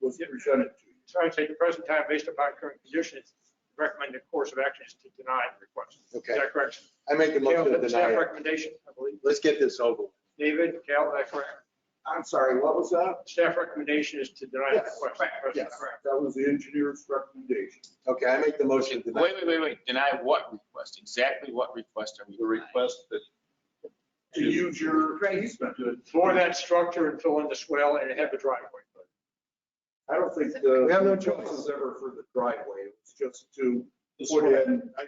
was presented to you. So I'd say at the present time, based upon current conditions, recommend the course of action is to deny the request. Okay. Is that correct? I make a Cal, motion to that's deny Staff it. recommendation, I believe. Let's get this over. with. David, Cal, is that correct? I'm sorry, what was that? Staff recommendation is to deny the Yes. request. at present Yes, time. that was the engineer's recommendation. Okay, I make the motion to Wait, deny. wait, wait, wait, deny what request? Exactly what request are we The denying? request that To use your easement. For that structure and fill in the swell and have the driveway. I don't think the. We have no choice. was ever for the driveway, it was just to The put in, I, I,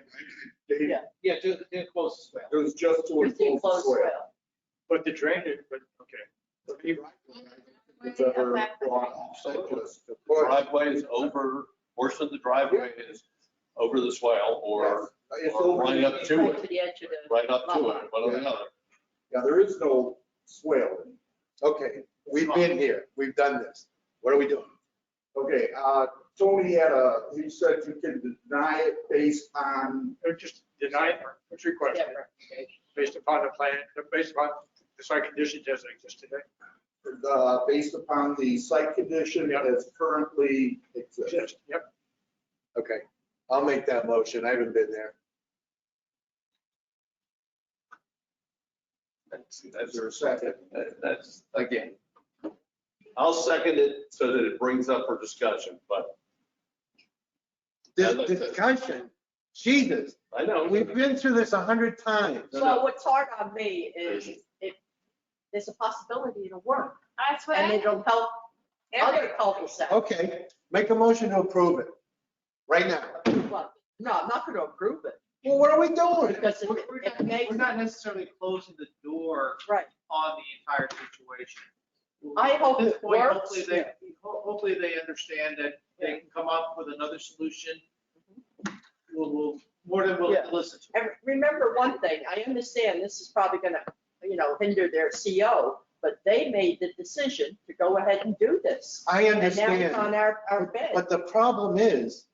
they- Yeah. Yeah, to, to enclose as well. it was just to Just enclose the enclosed soil. swale. But the drainage, but, okay. The driveway, I think, was ever brought up, so just to put- driveway is over, portion of the driveway is over the swale or It's or over, right up Right to To it, the edge of the. right up to it, one or the other. yeah, there is no swale. in it. Okay, we've been here. We've done this. What are we doing? Okay, uh, Tony had a, he said you can deny it based on, Or Just deny it, what's your question? Based upon the plan, based upon the site conditions as they exist today. uh, based upon the site condition as currently exists. Exist, Yep. Okay, I'll make that motion. I haven't been there. That's, Is there a second? that- that's, again, I'll second it so that it brings up for discussion, but This discussion, Jesus, I know. we've been through this a hundred times. No, Well, no. what's hard on me is if there's a possibility it'll work That's what and I, it'll help other cul-de-sacs. Okay, make a motion to approve it, right now. Well, No, I'm not going to approve it Well, what are we doing? because it We're we're it not- makes, we're not necessarily closing the door right. on the entire situation. I hope At this it point, works. Hopefully they, ho- hopefully they understand that they can come up with another solution. Mm-hmm. We'll, we'll, more than willing Yeah. to listen to. And remember one thing, I understand this is probably going to, you know, hinder their CO, but they made the decision to go ahead and do this. I And now it's on understand, our, our bed. but the problem is,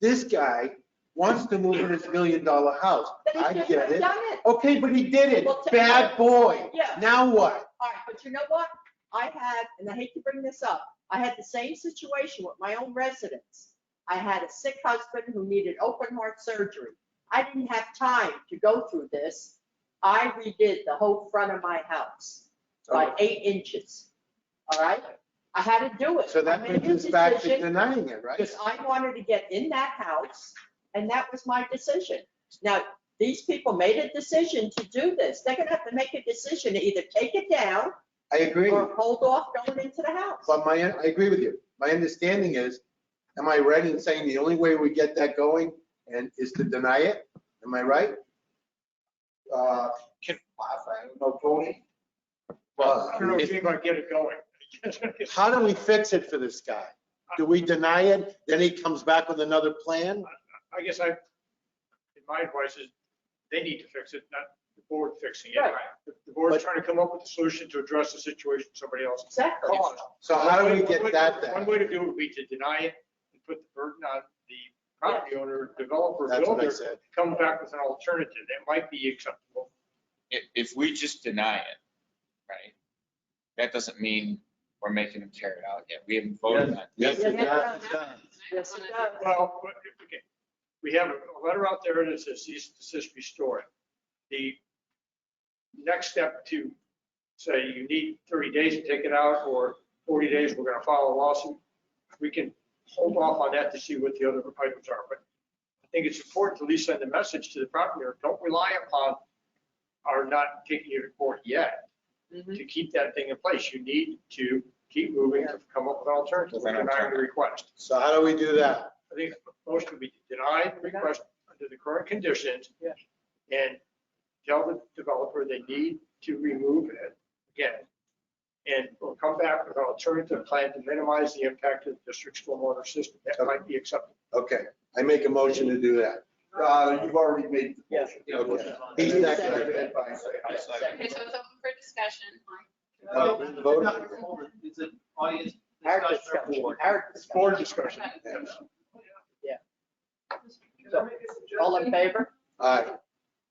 this guy wants to move in his million dollar house. They I shouldn't get have it. Done it. Okay, but he did it, Well, to- bad boy. Yeah. Now what? All right, but you know what? I had, and I hate to bring this up, I had the same situation with my own residents. I had a sick husband who needed open heart surgery. I didn't have time to go through this. I redid the whole front of my house Oh. by eight inches. All right? I had to do it. So that I made brings a us back to decision denying it, right? Because I wanted to get in that house, and that was my decision. Now, these people made a decision to do this. They're gonna have to make a decision to either take it down I agree. or hold off going into the house. But my, I agree with you. My understanding is, am I right in saying the only way we get that going and is to deny it? Am I right? Uh, I don't know, Tony? Uh, I don't know if you're going to get it going. How do we fix it for this guy? Do we deny it, then he comes back with another plan? I guess I, in my advice is, they need to fix it, not the board fixing it. Right. The- The board's But- trying to come up with a solution to address the situation somebody else. Exactly. caused. So how do One we way- get that One then? way to do it would be to deny it and put the burden on the property owner, developer, That's what I builder, said. come back with an alternative that might be acceptable. If, if we just deny it, right? That doesn't mean we're making them carry it out yet. We haven't voted on it. Yes, it Yeah. does, it does. Yes, it does. Well, but, okay, we have a letter out there that says cease and desist restored. The next step to say you need 30 days to take it out or 40 days, we're going to file a lawsuit. We can hold off on that to see what the other items are. But I think it's important to at least send a message to the property owner, don't rely upon our not taking you to court yet to keep that thing in place. You need to keep moving to come up with an alternative, With an deny the alternative. request. So how do we do that? I think the motion would be to deny the request under the current conditions. Yeah. And tell the developer they need to remove it again. And we'll come back with an alternative plan to minimize the impact of the district's stormwater system. That might be acceptable. Okay, I make a motion to do that. Uh, you've already made the Yeah. motion. the Okay. motions on He's it. not Seconded by- I second. okay, so it's open for discussion. Uh, No, vote. it's not hold it. It's an audience Our discussion or discussion, board. our Board discussion. discussion. All in favor? All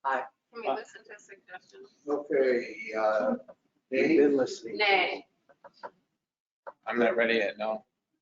right. Can we listen to suggestions? Okay, uh, You've Dave? listening. Nay. I'm not ready yet, no.